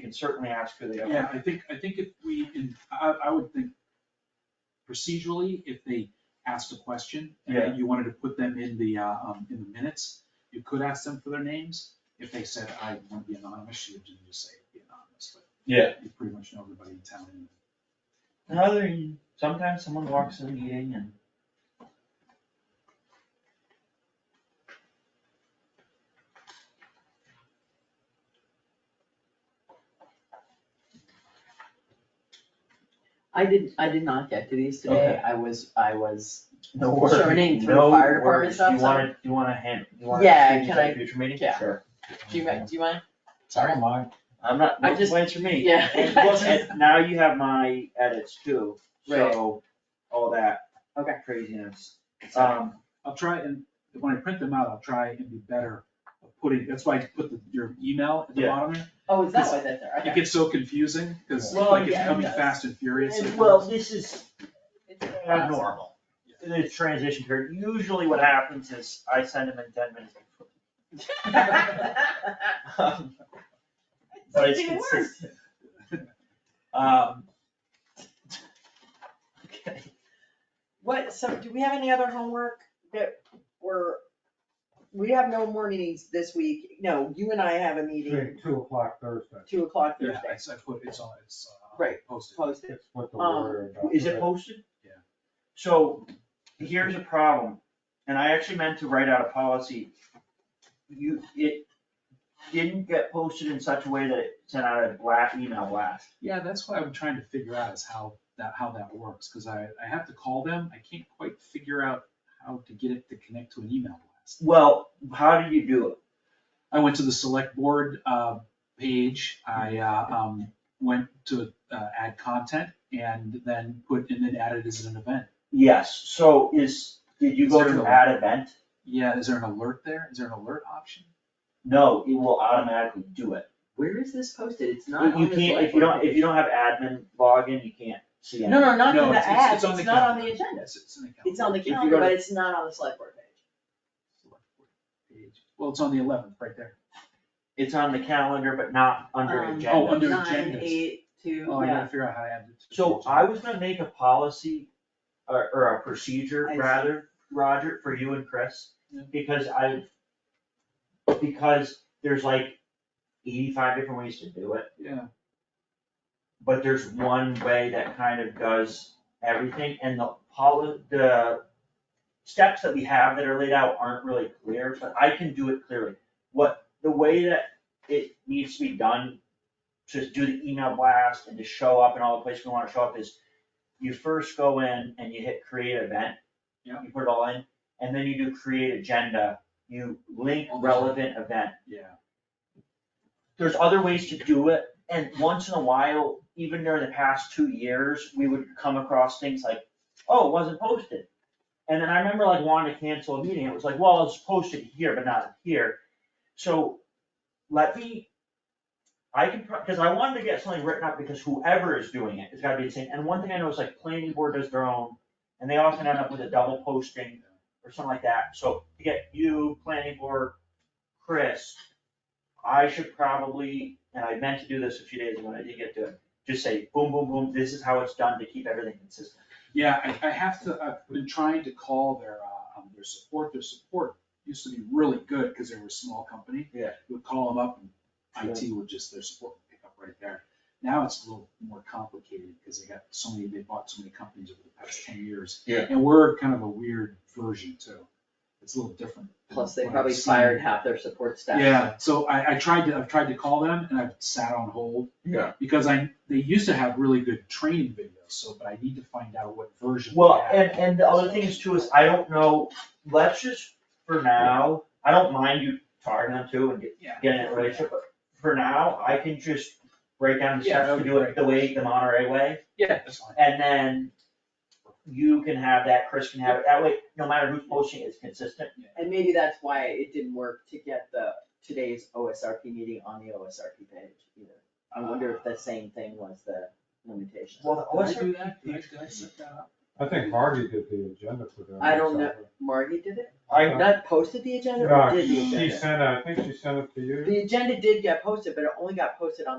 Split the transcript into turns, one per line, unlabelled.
can certainly ask who they are.
Yeah, I think, I think if we can, I, I would think procedurally, if they asked a question and then you wanted to put them in the, uh, um, in the minutes, you could ask them for their names. If they said, I want to be anonymous, you would just say, be anonymous, but.
Yeah.
You pretty much know everybody in town. and-
Another, thing, sometimes someone walks in the meeting and.
I did, I did not get to these
Okay.
today, I was, I was,
No
What's her name, through the fire department stuff,
No
so-
worries, you wanna, you wanna hand, you wanna
Yeah,
change
can
that
I-
future meeting?
yeah.
Sure.
do you, mi- do you mind?
Sorry.
I'm not,
I
no
just-
complaints from me.
yeah.
And look, and now you have my edits too, so, all that.
Okay.
Craziness.
Sorry.
Um,
I'll try and, when I print them out, I'll try and be better at putting, that's why I put the- your email at the
Yeah.
bottom there.
Oh, is that why that's there,
It
okay.
gets so confusing, cause
Well,
like it's
yeah, it
coming
does.
fast and furious.
and
at
well,
once.
this is
Awesome.
abnormal. The transition period, usually what happens is I send them in ten minutes before. Um, But it's
It's even worse.
consistent. Um. Okay.
What, so do we have any other homework that we're, we have no more meetings this week, no, you and I have a meeting,
Two, two o'clock Thursday,
two o'clock
Yeah,
Thursday,
I, I put, it's on, it's, uh,
Right.
posted.
posted.
it's what the
Um,
word. uh,
Is it posted?
Yeah.
So here's a problem, and I actually meant to write out a policy. You, it didn't get posted in such a way that it sent out a blast, email blast.
Yeah, that's what I'm trying to figure out is how that, how that works, because I, I have to call them, I can't quite figure out how to get it to connect to an email blast.
Well, how did you do it?
I went to the select board, uh, page, I, uh, um, went to, uh, add content and then put, and then add it as an event.
Yes, so is, did you go
Zero.
to add event?
Yeah, is there an alert there? Is there an alert option?
No, it will automatically do it.
Where is this posted? It's not
You
on the
can't, if you don't, if you don't have admin login, you can't see
No,
anything.
no, not
No,
in the
it's- it's-
ads,
it's on
it's
the
not on
calendar.
the agenda,
Yes, it's in the calendar.
it's on the
you go
calendar,
to-
but it's not on the select board page.
Select board page. Well, it's on the eleventh, right there.
It's on the calendar, but not under
Um,
agenda.
Oh, under
Nine,
agendas.
eight, two,
Oh, I gotta
yeah,
figure out how to add it. to the
So
page.
I was gonna make a policy, or, or a procedure
I see.
rather, Roger, for you and Chris,
Yeah.
because I, because there's like eighty-five different ways to do it,
Yeah.
but there's one way that kind of does everything, and the poli, the steps that we have that are laid out aren't really clear, but I can do it clearly. What, the way that it needs to be done, to do the email blast and to show up in all the places we wanna show up is you first go in and you hit create event.
Yeah.
You put it all in, and then you do create agenda, you link
Almost.
relevant event
Yeah.
there's other ways to do it, and once in a while, even during the past two years, we would come across things like, oh, it wasn't posted. And then I remember like wanting to cancel a meeting, it was like, well, it's posted here, but not here. So let me, I can, because I wanted to get something written up, because whoever is doing it, it's gotta be the same, and one thing I know is like planning board does their own, and they often end up with a double posting or something like that, so to get you, planning board, Chris, I should probably, and I meant to do this a few days ago, and I did get to it, just say, boom, boom, boom, this is how it's done to keep everything consistent.
Yeah, I, I have to, I've been trying to call their, uh, um, their support, their support used to be really good, cause they were a small company.
Yeah.
You would call them up and IT would just, their support would pick up right there. Now it's a little more complicated, cause they got so many, they bought so many companies over the past ten years.
Yeah.
And we're kind of a weird version too, it's a little different. than
plus they
what I've
probably
seen.
fired half their support staff.
Yeah, so I, I tried to, I've tried to call them and I've sat on hold.
Yeah.
Because I, they used to have really good training videos, so, but I need to find out what version. they
Well,
have.
and, and the other thing is too, is I don't know, let's just, for now, I don't mind you targeting them too and get-
Yeah.
getting it right, but for now, I can just break down the
Yeah, that
steps
would
to
be
do it
great.
the way, the Monterey way.
Yeah, that's fine.
And then you can have that, Chris can have it, that way, no matter who's posting, it, it's consistent.
And maybe that's why it didn't work to get the, today's OSRP meeting on the OSRP page either. I wonder if the same thing was the limitation.
Well,
Did I do that? Did I, did I set that up?
I think Marty did the agenda for that.
I don't know. Margie did it,
I,
not posted the agenda,
No,
or did the
she
agenda?
sent, it- I think she sent it to you.
The agenda did get posted, but it only got posted on